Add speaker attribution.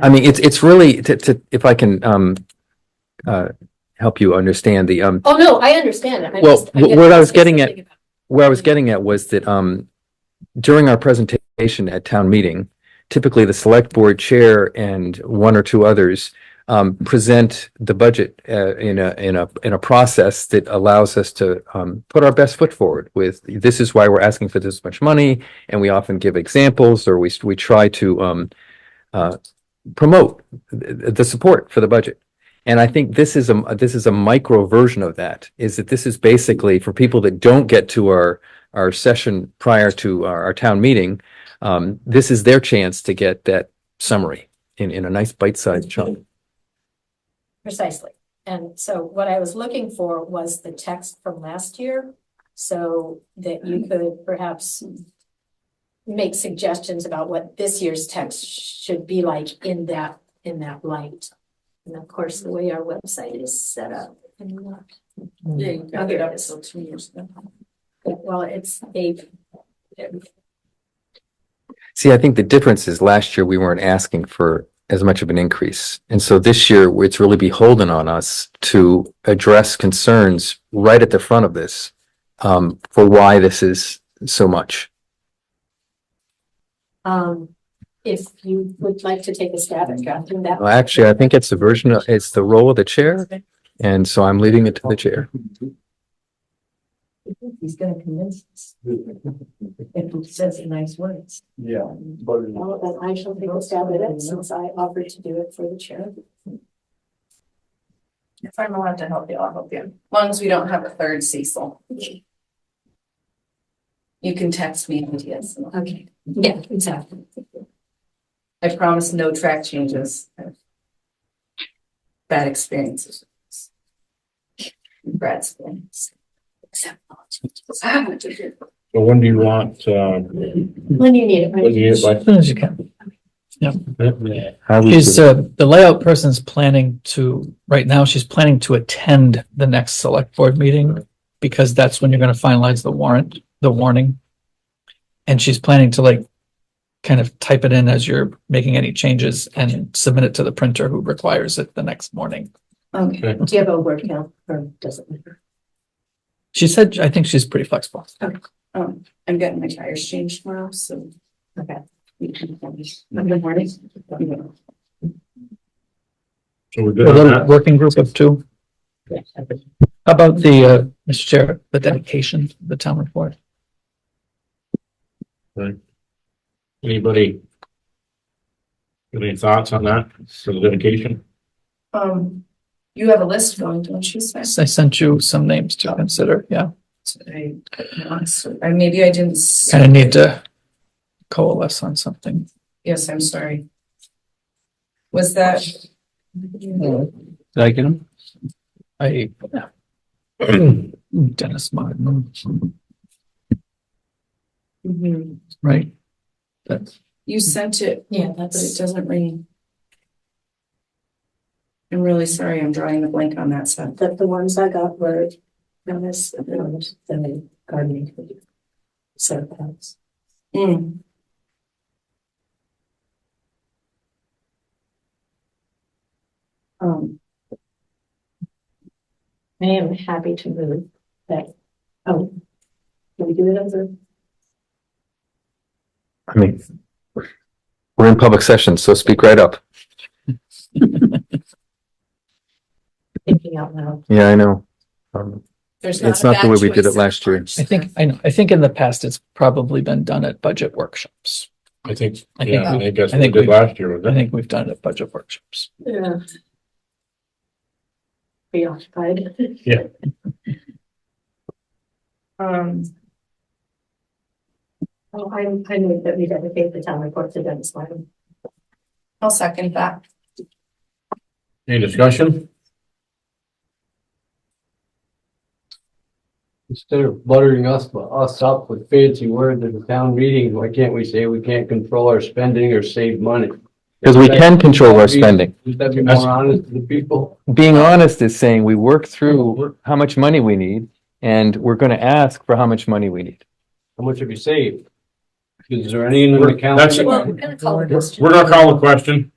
Speaker 1: I mean, it's, it's really, to, to, if I can, um, uh, help you understand the, um,
Speaker 2: Oh, no, I understand. I'm
Speaker 1: Well,
Speaker 2: just- I'm
Speaker 1: wh-
Speaker 2: getting
Speaker 1: what I was
Speaker 2: confused
Speaker 1: getting at-
Speaker 2: thinking about-
Speaker 1: where I was getting at was that, um, during our presentation at town meeting, typically the select board chair and one or two others, um, present the budget, uh, in a, in a, in a process that allows us to, um, put our best foot forward with, this is why we're asking for this much money, and we often give examples, or we, we try to, um, uh, promote the, the support for the budget. And I think this is a, this is a micro version of that, is that this is basically for people that don't get to our, our session prior to our, our town meeting. Um, this is their chance to get that summary in, in a nice bite-sized chunk.
Speaker 2: Precisely. And so what I was looking for was the text from last year, so that
Speaker 1: Mm-hmm.
Speaker 2: you could perhaps make suggestions about what this year's text should be like in that, in that light. And of course, the way our website is set up. I'm not-
Speaker 3: Yeah, you got it up
Speaker 2: Yes.
Speaker 3: until two years ago.
Speaker 2: Well, it's a,
Speaker 1: See, I think the difference is last year we weren't asking for as much of an increase. And so this year, it's really beholden on us to address concerns right at the front of this, um, for why this is so much.
Speaker 2: um, if you would like to take a stab at drafting that.
Speaker 1: Well, actually, I think it's the version, of- it's the role of the chair, and so I'm leaving it to the chair.
Speaker 3: He's gonna convince us if he says the nice words.
Speaker 4: Yeah,
Speaker 2: Well,
Speaker 4: but.
Speaker 2: then I shall take a stab at it since I offered to do it for the chair.
Speaker 3: If I'm allowed to help you, I'll help you. As long as we don't have a third Cecil. You can text me ideas.
Speaker 2: Okay, yeah, exactly.
Speaker 3: I promise no track changes. Bad experiences. Brad's experience.
Speaker 2: Except
Speaker 4: So when do you want, um,
Speaker 2: When you need it,
Speaker 4: when do you
Speaker 2: right?
Speaker 4: get like?
Speaker 5: As soon as you can.
Speaker 4: How we
Speaker 5: Is
Speaker 4: should-
Speaker 5: uh, the layout person's planning to, right now, she's planning to attend the next select board meeting because that's when you're gonna finalize the warrant, the warning. And she's planning to like kind of type it in as you're making any changes and submit it to the printer who requires it the next morning.
Speaker 2: Okay, do you have a word count or doesn't matter?
Speaker 5: She said, I think she's pretty flexible.
Speaker 3: Um, I'm getting my tires changed tomorrow, so.
Speaker 2: Okay.
Speaker 3: Monday morning.
Speaker 4: So we're
Speaker 5: A
Speaker 4: good on
Speaker 5: little
Speaker 4: that?
Speaker 5: working group of two. How about the, uh, Mr. Chair, the dedication, of the town report?
Speaker 4: Anybody? got Any thoughts on that, for the dedication?
Speaker 3: Um, you have a list going, don't you, Sven?
Speaker 5: I sent you some names to consider, yeah.
Speaker 3: I, honestly, I- maybe I didn't. s-
Speaker 5: kind of need to coalesce on something.
Speaker 3: Yes, I'm sorry. Was that?
Speaker 2: Mm-hmm.
Speaker 1: Did I get him?
Speaker 5: I, Dennis Martin,
Speaker 3: Mhm.
Speaker 5: right? That's,
Speaker 3: You sent it,
Speaker 2: Yeah,
Speaker 3: but it
Speaker 2: that's,
Speaker 3: doesn't ring. I'm really sorry, I'm drawing the blank on that stuff.
Speaker 2: that the ones I got were from this, uh, and then gardening. So that's.
Speaker 3: Mm. Um,
Speaker 2: I am happy to move that. Oh. Can we do it as a?
Speaker 1: I mean, we're in public session, so speak right up.
Speaker 2: thinking out loud?
Speaker 1: Yeah, I know. Um,
Speaker 3: there's not.
Speaker 1: It's not the way we did it last year.
Speaker 5: I think, I know, I think in the past, it's probably been done at budget workshops.
Speaker 4: I think,
Speaker 5: I think
Speaker 4: yeah, I
Speaker 5: we-
Speaker 4: think that's
Speaker 5: I
Speaker 4: what we
Speaker 5: think
Speaker 4: did
Speaker 5: we-
Speaker 4: last year,
Speaker 5: I
Speaker 4: wasn't it?
Speaker 5: think we've done it at budget workshops.
Speaker 2: Yeah. Preoccupied.
Speaker 3: Um,
Speaker 2: Oh, I'm, I move that we dedicate the town report to Dennis Lyman.
Speaker 3: I'll second that.
Speaker 4: Any discussion?
Speaker 6: Instead of buttering us, us up with fancy words at the town meeting, why can't we say we can't control our spending or save money?
Speaker 1: Because we can control our spending.
Speaker 6: Would that be more honest to the people?
Speaker 1: Being honest is saying we work through how much money we need, and we're going to ask for how much money we need.
Speaker 6: How much have you saved? Is there any in
Speaker 4: We're-
Speaker 6: the
Speaker 4: that's-
Speaker 6: account?
Speaker 4: We're gonna call the question.